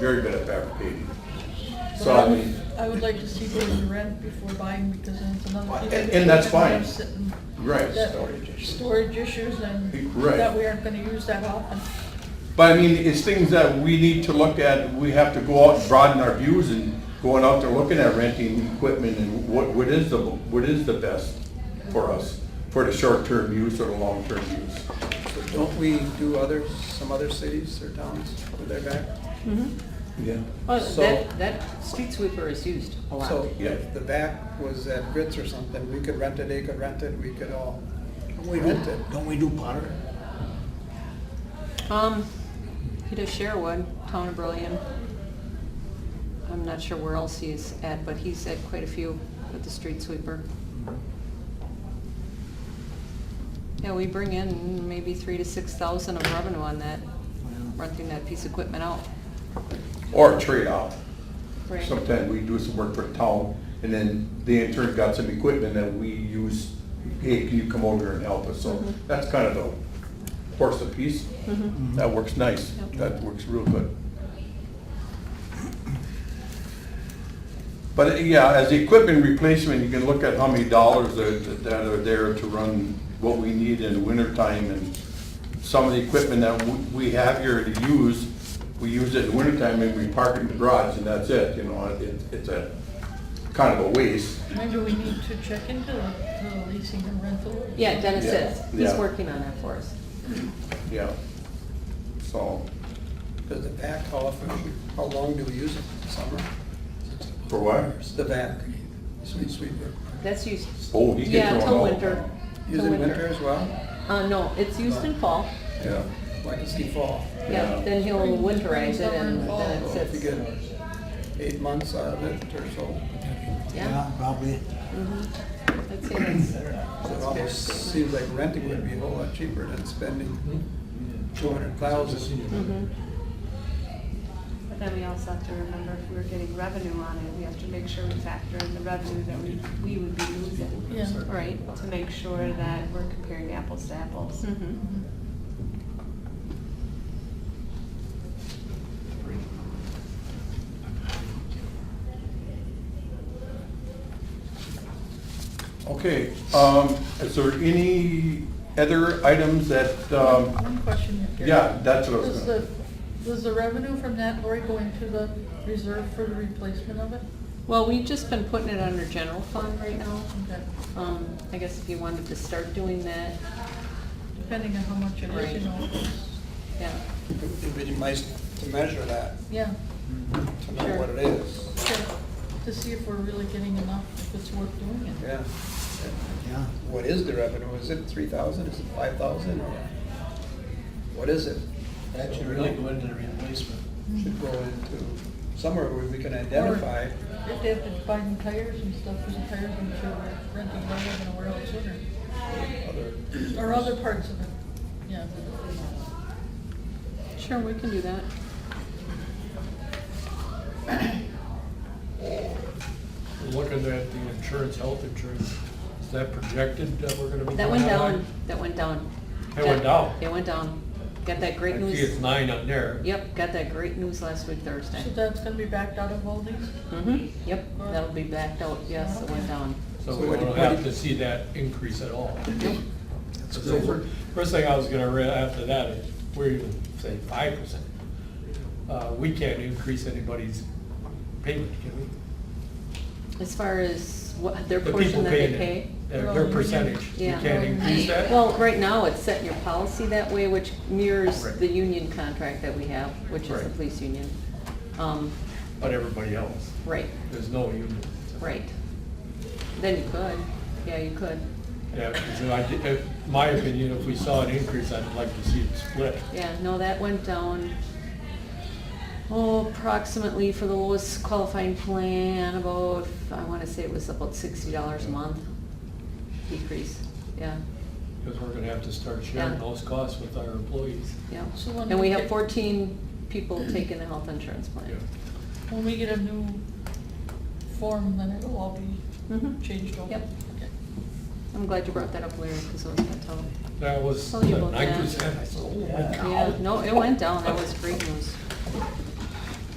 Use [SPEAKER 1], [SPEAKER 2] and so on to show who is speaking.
[SPEAKER 1] very good at fabricating.
[SPEAKER 2] But I
[SPEAKER 1] So,
[SPEAKER 2] would, I would like to see what the rent before buying, because then it's another.
[SPEAKER 1] And-
[SPEAKER 2] thing.
[SPEAKER 1] and that's fine.
[SPEAKER 2] We're sitting-
[SPEAKER 1] Right.
[SPEAKER 2] that-
[SPEAKER 1] Storage issues.
[SPEAKER 2] Storage issues and.
[SPEAKER 1] Right.
[SPEAKER 2] That we aren't gonna use that often.
[SPEAKER 1] but I mean, it's things that we need to look at, we have to go out and broaden our views and going out there looking at renting equipment and what, what is the, what is the best for us, for the short-term use or the long-term use.
[SPEAKER 3] So Don't we do other, some other cities or towns with their back?
[SPEAKER 1] Yeah.
[SPEAKER 4] Well,
[SPEAKER 3] So-
[SPEAKER 4] that, that street sweeper is used a lot.
[SPEAKER 3] So
[SPEAKER 1] Yeah.
[SPEAKER 3] if the back was at Grits or something, we could rent it, they could rent it, we could all rent it.
[SPEAKER 5] Don't we do Potter?
[SPEAKER 4] Um, he does Sherwood, Town of Brilliant. I'm not sure where else he's at, but he's at quite a few with the street sweeper. Yeah, we bring in maybe three to six thousand of revenue on that, renting that piece of equipment out.
[SPEAKER 1] Or trade-off. Sometimes we do some work for the town, and then they in turn got some equipment that we use, hey, can you come over and help us? So
[SPEAKER 2] Mm-hmm.
[SPEAKER 1] that's kind of the horse apiece. That works nice,
[SPEAKER 4] Mm-hmm. Yep.
[SPEAKER 1] that works real good. But uh, yeah, as the equipment replacement, you can look at how many dollars are- that are there to run what we need in the wintertime and some of the equipment that w- we have here to use, we use it in wintertime and we park it in the garage and that's it, you know, it, it's a kind of a waste.
[SPEAKER 2] Maybe we need to check into the the leasing and rental.
[SPEAKER 4] Yeah, Dennis
[SPEAKER 1] Yeah.
[SPEAKER 4] is, he's
[SPEAKER 1] Yeah.
[SPEAKER 4] working on that for us.
[SPEAKER 1] Yeah. So,
[SPEAKER 3] Because the back, how often, how long do we use it? Summer?
[SPEAKER 1] for what?
[SPEAKER 3] It's the back, street sweeper.
[SPEAKER 4] That's used,
[SPEAKER 1] Oh, he gets
[SPEAKER 4] yeah, till
[SPEAKER 1] thrown out.
[SPEAKER 4] winter.
[SPEAKER 3] Use
[SPEAKER 4] till
[SPEAKER 3] it winter as well?
[SPEAKER 4] Uh, no, it's used in fall,
[SPEAKER 1] Yeah.
[SPEAKER 3] Like it's the fall.
[SPEAKER 1] Yeah.
[SPEAKER 4] yeah, then he'll winterize it and then
[SPEAKER 6] Oh,
[SPEAKER 3] So
[SPEAKER 4] it
[SPEAKER 3] if you
[SPEAKER 4] sits.
[SPEAKER 3] get eight months out of it or so,
[SPEAKER 4] Yeah.
[SPEAKER 5] Probably.
[SPEAKER 4] I'd say that's-
[SPEAKER 3] it almost seems like renting would be a whole lot cheaper than spending
[SPEAKER 5] Mm-hmm.
[SPEAKER 3] two hundred thousand.
[SPEAKER 7] But then we also have to remember if we're getting revenue on it, we have to make sure we factor in the revenue that we, we would be losing.
[SPEAKER 2] Yeah.
[SPEAKER 4] Right.
[SPEAKER 7] To make sure that we're comparing apples to apples.
[SPEAKER 4] Mhm.
[SPEAKER 1] Okay, um, is there any other items that, um,
[SPEAKER 2] One question. here.
[SPEAKER 1] yeah, that's what I was
[SPEAKER 2] Does
[SPEAKER 1] gonna.
[SPEAKER 2] the, does the revenue from that, Lori, go into the reserve for the replacement of it?
[SPEAKER 4] Well, we've just been putting it under general fund right now.
[SPEAKER 2] Okay.
[SPEAKER 4] Um, I guess if you wanted to start doing that,
[SPEAKER 2] Depending on how much it is, you know.
[SPEAKER 4] yeah,
[SPEAKER 3] It'd be nice to measure that,
[SPEAKER 2] Yeah,
[SPEAKER 3] to know
[SPEAKER 4] Sure.
[SPEAKER 3] what it is.
[SPEAKER 2] sure. to see if we're really getting enough, if it's worth doing it.
[SPEAKER 3] Yeah.
[SPEAKER 5] Yeah.
[SPEAKER 3] What is the revenue? Is it three thousand? Is it five thousand? Or What is it?
[SPEAKER 5] That should really go into the replacement.
[SPEAKER 3] Should go into somewhere where we can identify.
[SPEAKER 2] If they have to buy new tires and stuff, because the tires I'm sure were rented longer than a world sooner,
[SPEAKER 3] other.
[SPEAKER 2] or other parts of it, yeah.
[SPEAKER 4] sure, we can do that.
[SPEAKER 6] Looking at the insurance, health insurance, is that projected that we're gonna be?
[SPEAKER 4] That went
[SPEAKER 6] going up?
[SPEAKER 4] down, that went down.
[SPEAKER 6] That went down?
[SPEAKER 4] It went down. Got that
[SPEAKER 6] I
[SPEAKER 4] great
[SPEAKER 6] see it's
[SPEAKER 4] news.
[SPEAKER 6] nine on there.
[SPEAKER 4] Yep, got that great news last week Thursday.
[SPEAKER 2] So that's gonna be backed out of all these?
[SPEAKER 4] hmm yep, that'll be backed out, yes, it went down.
[SPEAKER 6] So
[SPEAKER 3] So
[SPEAKER 6] we
[SPEAKER 3] what do-
[SPEAKER 6] don't
[SPEAKER 3] what
[SPEAKER 6] have
[SPEAKER 3] do-
[SPEAKER 6] to see that increase at all.
[SPEAKER 4] Nope.
[SPEAKER 6] So fir- First thing I was gonna read after that is, we're even saying five percent. Uh, we can't increase anybody's payment, can we?
[SPEAKER 4] As far as what, their
[SPEAKER 6] The
[SPEAKER 4] portion
[SPEAKER 6] people
[SPEAKER 4] that they
[SPEAKER 6] paying it,
[SPEAKER 4] pay.
[SPEAKER 6] Their their percentage, we
[SPEAKER 4] Yeah.
[SPEAKER 6] can't increase that?
[SPEAKER 4] Well, right now, it's set in your policy that way, which mirrors
[SPEAKER 6] Right.
[SPEAKER 4] the union contract that we have, which is the
[SPEAKER 6] Right.
[SPEAKER 4] police union. Um,
[SPEAKER 6] But everybody else,
[SPEAKER 4] right,
[SPEAKER 6] there's no union.
[SPEAKER 4] right. Then you could, yeah, you could,
[SPEAKER 6] Yeah, because if I did- if- my opinion, if we saw an increase, I'd like to see it split.
[SPEAKER 4] yeah, no, that went down, oh, approximately for the lowest qualifying plan, about, I wanna say it was about sixty dollars a month decrease, yeah,
[SPEAKER 6] Because we're gonna have to start sharing
[SPEAKER 4] Yeah.
[SPEAKER 6] those costs with our employees.
[SPEAKER 4] yeah.
[SPEAKER 2] So when
[SPEAKER 4] And
[SPEAKER 2] we
[SPEAKER 4] we have
[SPEAKER 2] get-
[SPEAKER 4] fourteen people taking the health insurance
[SPEAKER 6] Yeah.
[SPEAKER 4] plan.
[SPEAKER 2] When we get a new form, then it'll all be
[SPEAKER 4] Mhm.
[SPEAKER 2] changed over.
[SPEAKER 4] Yep.
[SPEAKER 2] Okay.
[SPEAKER 4] I'm glad you brought that up, Larry, because I was gonna tell him.
[SPEAKER 6] That was
[SPEAKER 4] Tell you about
[SPEAKER 6] nine
[SPEAKER 4] that.
[SPEAKER 6] percent, I said, oh my
[SPEAKER 5] Yeah.
[SPEAKER 6] God.
[SPEAKER 4] Yeah, no, it went down, that was great news.